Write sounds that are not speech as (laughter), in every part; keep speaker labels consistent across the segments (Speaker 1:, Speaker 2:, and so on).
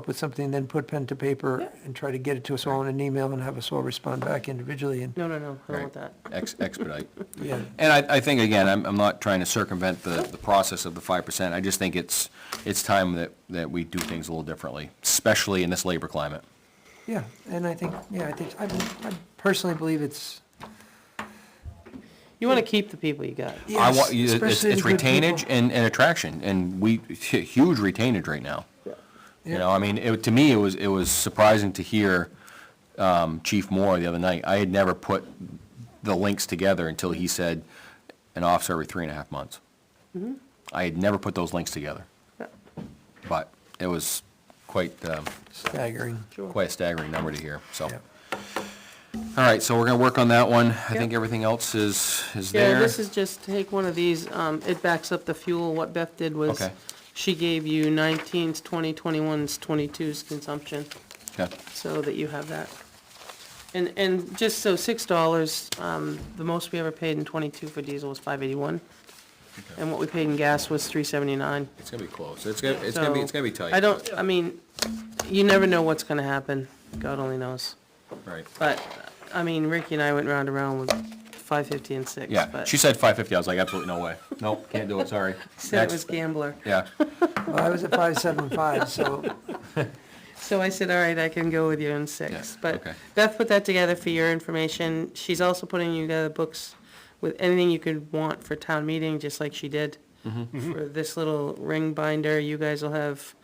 Speaker 1: up with something, then put pen to paper and try to get it to us all in an email and have us all respond back individually and,
Speaker 2: No, no, no, I don't
Speaker 3: Right.
Speaker 2: want that.
Speaker 3: Ex-
Speaker 2: (laughs)
Speaker 3: Expedite.
Speaker 1: yeah.
Speaker 3: And I, I think, again, I'm, I'm not trying to circumvent the, the process of the five percent. I just think it's, it's time that, that we do things a little differently, especially in this labor climate.
Speaker 1: Yeah, and I think, yeah, I think, I I personally believe it's,
Speaker 2: You want to keep the people you got.
Speaker 3: I
Speaker 1: yes,
Speaker 3: want, you- it's,
Speaker 1: especially
Speaker 3: it's
Speaker 1: the good people.
Speaker 3: retainage and, and attraction, and we, huge retainage right now. You
Speaker 1: Yeah.
Speaker 3: know, I mean, it, to me, it was, it was surprising to hear, um, Chief Moore the other night. I had never put the links together until he said an officer every three and a half months.
Speaker 1: Mm-hmm.
Speaker 3: I had never put those links together. But it was quite, um,
Speaker 1: Staggering,
Speaker 3: quite a staggering number to hear, so.
Speaker 1: yeah.
Speaker 3: All right, so we're gonna work on that one. I think
Speaker 2: Yeah.
Speaker 3: everything else is, is there.
Speaker 2: Yeah, this is just, take one of these, um, it backs up the fuel. What Beth did was,
Speaker 3: Okay.
Speaker 2: she gave you 19s, 20, 21s, 22s consumption,
Speaker 3: Okay.
Speaker 2: so that you have that. And, and just so $6, um, the most we ever paid in 22 for diesel was 581. And what we paid in gas was 379.
Speaker 3: It's gonna be close. It's gonna, it's gonna be, it's
Speaker 2: So,
Speaker 3: gonna be tight.
Speaker 2: I don't, I mean, you never know what's gonna happen, God only knows.
Speaker 3: Right.
Speaker 2: But, I mean, Ricky and I went round and round with five fifty and six,
Speaker 3: Yeah,
Speaker 2: but
Speaker 3: she
Speaker 2: she
Speaker 3: said five fifty, I was like, absolutely no way. Nope, can't do
Speaker 2: (laughs)
Speaker 3: it, sorry.
Speaker 2: said it was
Speaker 3: Next.
Speaker 2: gambler.
Speaker 3: Yeah,
Speaker 1: Well, I was at five seven five, so,
Speaker 2: So I said, all right, I can go with you in
Speaker 3: Yeah,
Speaker 2: six. But
Speaker 3: okay.
Speaker 2: Beth put that together for your information. She's also putting together books with anything you could want for town meeting, just like she did.
Speaker 3: Mm-hmm.
Speaker 2: For this little ring binder, you guys will have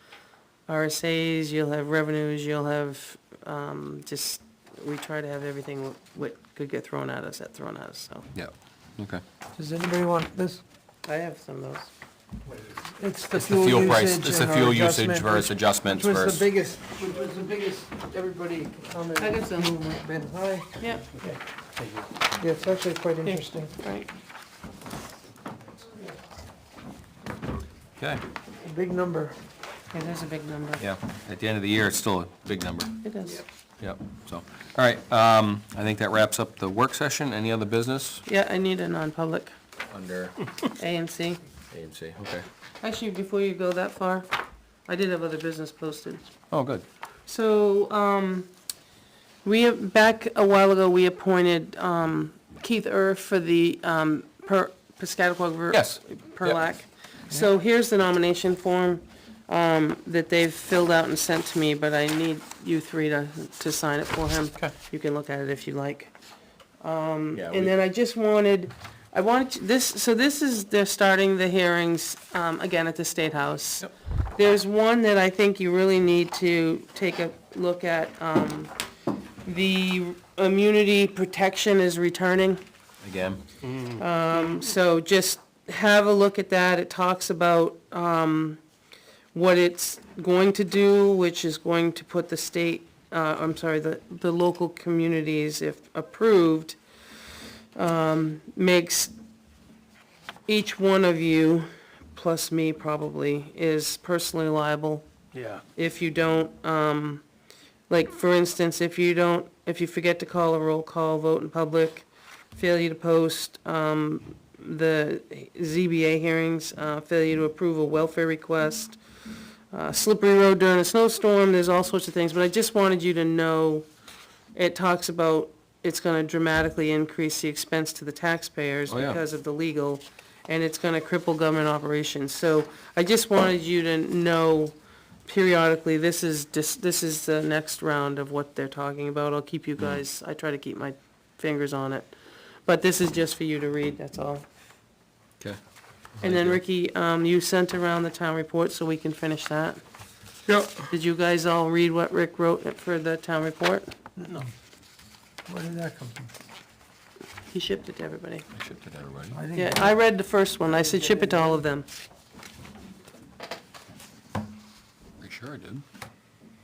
Speaker 2: RSAs, you'll have revenues, you'll have, um, just, we try to have everything what- what could get thrown at us, at thrown at us, so.
Speaker 3: (laughs) yeah, okay.
Speaker 1: does anybody want this?
Speaker 2: I have some of those.
Speaker 1: It's the
Speaker 3: It's the
Speaker 1: fuel
Speaker 3: fuel
Speaker 1: usage
Speaker 3: price, it's
Speaker 2: uh,
Speaker 3: the
Speaker 1: and our
Speaker 3: fuel usage
Speaker 1: adjustment,
Speaker 3: versus
Speaker 1: which-
Speaker 3: adjustments
Speaker 1: Which was the
Speaker 3: versus,
Speaker 1: biggest, which was the biggest, everybody commented.
Speaker 2: I got some.
Speaker 1: who had Been high.
Speaker 2: Yep,
Speaker 1: Yeah, it's actually quite interesting.
Speaker 2: right.
Speaker 3: okay,
Speaker 1: A Big number.
Speaker 2: It is a big number.
Speaker 3: yeah. At the end of the year, it's still a big number,
Speaker 2: It is.
Speaker 3: yep, so. All right, um, I think that wraps up the work session. Any other business?
Speaker 2: Yeah, I need a non-public,
Speaker 3: Under
Speaker 2: AMC.
Speaker 3: AMC, okay.
Speaker 2: Actually, before you go that far, I did have other business posted.
Speaker 3: Oh, good.
Speaker 2: So, um, we, have- back a while ago, we appointed, um, Keith Erf for the, um, per, Piscataqua.
Speaker 3: Yes.
Speaker 2: Perlac. So here's the nomination form, um, that they've filled out and sent to me, but I need you three to, to sign it for him.
Speaker 3: Okay.
Speaker 2: You can look at it if you like.
Speaker 3: Yeah,
Speaker 2: And then I just wanted, I wanted, to- this, so this is, they're starting the hearings, um, again, at the State House.
Speaker 3: Yep.
Speaker 2: There's one that I think you really need to take a look at, um, the immunity protection is returning.
Speaker 3: Again,
Speaker 2: So just have a look at that. It talks about um, what it's going to do, which is going to put the state, uh, I'm sorry, the, the local communities, if approved, um, makes each one of you, plus me probably, is personally liable
Speaker 4: Yeah.
Speaker 2: if you don't, um, like, for instance, if you don't, if you forget to call a roll call vote in public, failure to post, um, the ZBA hearings, uh, failure to approve a welfare request, uh, slippery road during a snowstorm, there's all sorts of things, but I just wanted you to know, it talks about it's gonna dramatically increase the expense to the taxpayers
Speaker 3: Oh, yeah.
Speaker 2: because of the legal, and it's gonna cripple government operations, so I just wanted you to know periodically, this is, dis- this is the next round of what they're talking about. I'll keep you
Speaker 3: Mm.
Speaker 2: guys, I try to keep my fingers on it. But this is just for you to read, that's all.
Speaker 3: okay.
Speaker 2: And
Speaker 3: Thank
Speaker 2: then
Speaker 3: you.
Speaker 2: Ricky, um, you sent around the town report so we can finish that.
Speaker 4: Yep.
Speaker 2: Did you guys all read what Rick wrote for the town report?
Speaker 1: Where did that come from?
Speaker 2: He shipped it to everybody.
Speaker 3: I shipped it to everybody.
Speaker 1: I didn't-
Speaker 2: Yeah, I read the first one. I said ship it to all of them.
Speaker 3: Pretty sure I did.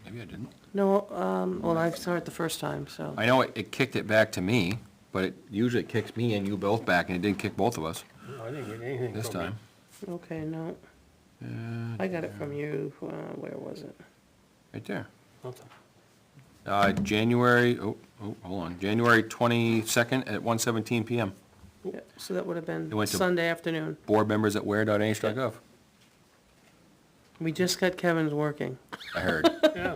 Speaker 3: Maybe I didn't.
Speaker 2: No, um, well, I saw it the first time, so.
Speaker 3: I know it, it kicked it back to me, but it usually kicks me and you both back, and it didn't kick both of us
Speaker 4: No, I didn't get anything
Speaker 3: this
Speaker 4: from you.
Speaker 3: time.
Speaker 2: Okay, no,
Speaker 3: Uh,
Speaker 2: I got it from you. Uh, where was it?
Speaker 3: Right there.
Speaker 4: Nothing.
Speaker 3: Uh, January, oh, oh, hold on, January twenty-second at one seventeen PM.
Speaker 2: Yeah, So that would have been
Speaker 3: It went Oh. to-
Speaker 2: Sunday afternoon.
Speaker 3: Board members at where.nh.gov.
Speaker 5: We just got Kevin's working.
Speaker 2: I heard.
Speaker 3: yeah.